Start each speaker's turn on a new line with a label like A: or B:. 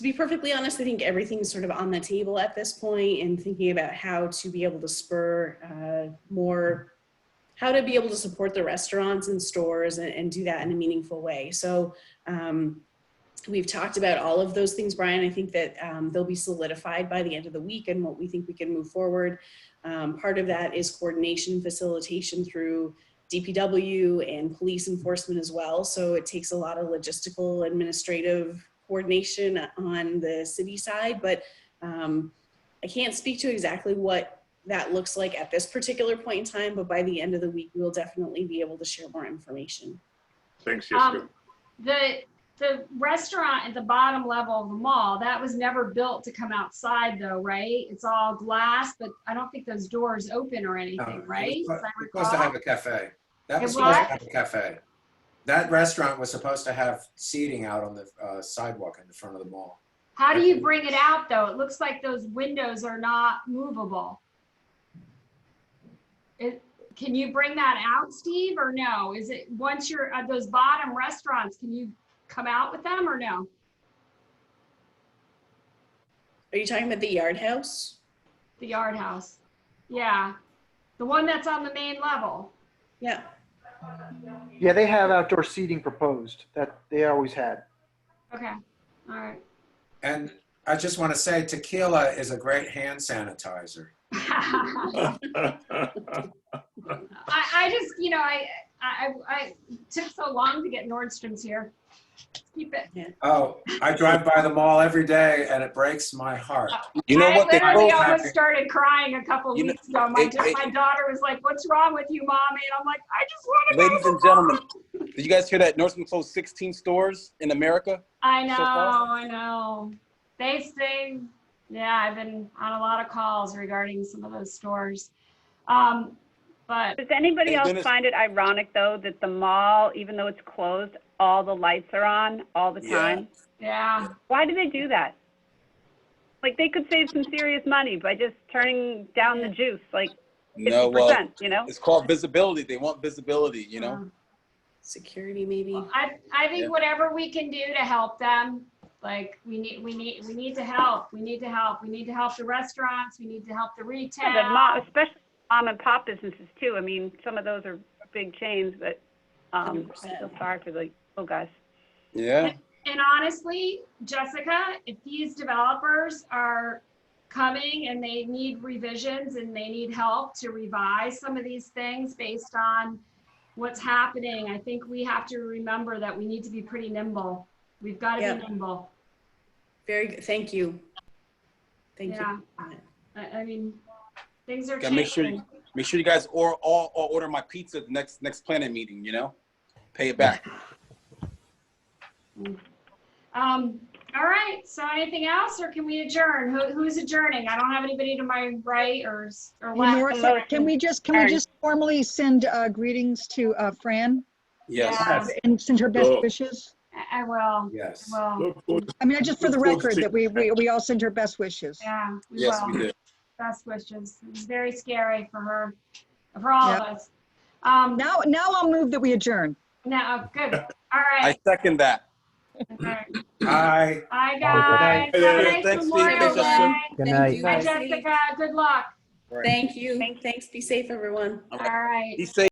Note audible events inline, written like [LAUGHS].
A: to be perfectly honest, I think everything's sort of on the table at this point and thinking about how to be able to spur uh, more, how to be able to support the restaurants and stores and, and do that in a meaningful way. So um, we've talked about all of those things, Brian. I think that um, they'll be solidified by the end of the week and what we think we can move forward. Um, part of that is coordination, facilitation through DPW and police enforcement as well. So it takes a lot of logistical, administrative coordination on the city side, but um, I can't speak to exactly what that looks like at this particular point in time, but by the end of the week, we'll definitely be able to share more information.
B: Thanks, Jessica.
C: Um, the, the restaurant at the bottom level of the mall, that was never built to come outside though, right? It's all glass, but I don't think those doors open or anything,
D: No,
C: right?
D: It was
C: As I
D: supposed- supposed to
C: recall.
D: have a cafe.
C: It
D: That was supposed to
C: what?
D: have a cafe. That restaurant was supposed to have seating out on the uh, sidewalk in the front of the mall.
C: How do you bring it out though? It looks like those windows are not movable. It, can you bring that out, Steve, or no? Is it, once you're at those bottom restaurants, can you come out with them or no?
A: Are you talking about the yard house?
C: The yard house? Yeah, the one that's on the main level.
A: Yeah.
E: Yeah, they have outdoor seating proposed that they always had.
C: Okay, all right. [LAUGHS]
D: And I just want to say tequila is a great hand sanitizer.
C: I, I just, you know, I, I, I I- it took so long to get Nordstrom's here. Keep it.
D: Oh, I drive by the mall every day and it breaks my heart.
F: You know
C: I
F: what they
C: literally
F: both
C: almost
F: have?
C: started crying a couple
F: You know,
C: weeks ago. My,
F: it- it-
C: my daughter was like, "What's wrong with you, mommy?" And I'm like, "I just want to go."
F: Ladies
C: to
F: and
C: the mall."
F: gentlemen, did you guys hear that? Nordstrom closed 16 stores in America.
C: I know,
F: so far.
C: I know. They say, yeah, I've been on a lot of calls regarding some of those stores. Um, but
G: Does anybody
F: Hey,
G: else
F: Dennis-
G: find it ironic, though, that the mall, even though it's closed, all the lights are on all the
F: Yeah.
G: time?
C: yeah,
G: Why do they do that? Like, they could save some serious money by just turning down the juice, like
F: No, well,
G: 50%, you know?
F: it's called visibility. They want visibility, you
C: Uh-huh.
F: know?
A: Security, maybe.
C: Well, I, I
F: Yeah.
C: think whatever we can do to help them, like, we need, we need, we need to help, we need to help, we need to help the restaurants, we need to help the
G: Yeah, the mom,
C: retail.
G: especially mom and pop businesses, too. I mean, some of those are big chains, but um, I
A: 100%.
G: feel sorry for the oh, little guys.
F: Yeah.
C: And honestly, Jessica, if these developers are coming and they need revisions and they need help to revise some of these things based on what's happening, I think we have to remember that we need to be pretty nimble. We've got to
A: Yeah.
C: be nimble.
A: Very good. Thank you. Thank
C: Yeah.
A: you.
C: I, I mean, things are
F: Gotta make sure
C: changing.
F: Make sure you guys or all, all order my pizza at the next next planet meeting, you know? Pay it back.
C: Um, all right, so anything else, or can we adjourn? Who, who's adjourning? I don't have anybody to my right or, s- or
H: Hey,
C: left.
H: Martha, can we just, can we
G: Sorry.
H: just formally send uh, greetings to uh, Fran
F: Yes.
C: Yeah.
H: and send her best
B: Sure.
H: wishes?
C: I- I will,
D: Yes.
C: I
B: [LAUGHS]
C: will,
B: Look forward to
H: I mean, I just for the
B: Of course,
H: record, that we, we we all send her best wishes.
C: yeah, we
F: Yes, we
C: will.
F: did.
C: Best wishes. It was very scary for her, for all of us. Um,
H: Now, now I'll move that we adjourn.
C: no, good, all
F: I
C: right.
F: second that.
C: all right.
D: Hi.
C: Bye, guys. Have
B: Good
C: a
F: night.
C: nice
F: Thanks,
C: Memorial
F: Steve. Thanks,
C: Day.
E: Good
A: Thank
E: night.
A: you.
C: Bye, Jessica, good luck.
A: Thank you.
G: Thank you.
A: Thanks. Be safe, everyone.
C: All right.
F: He said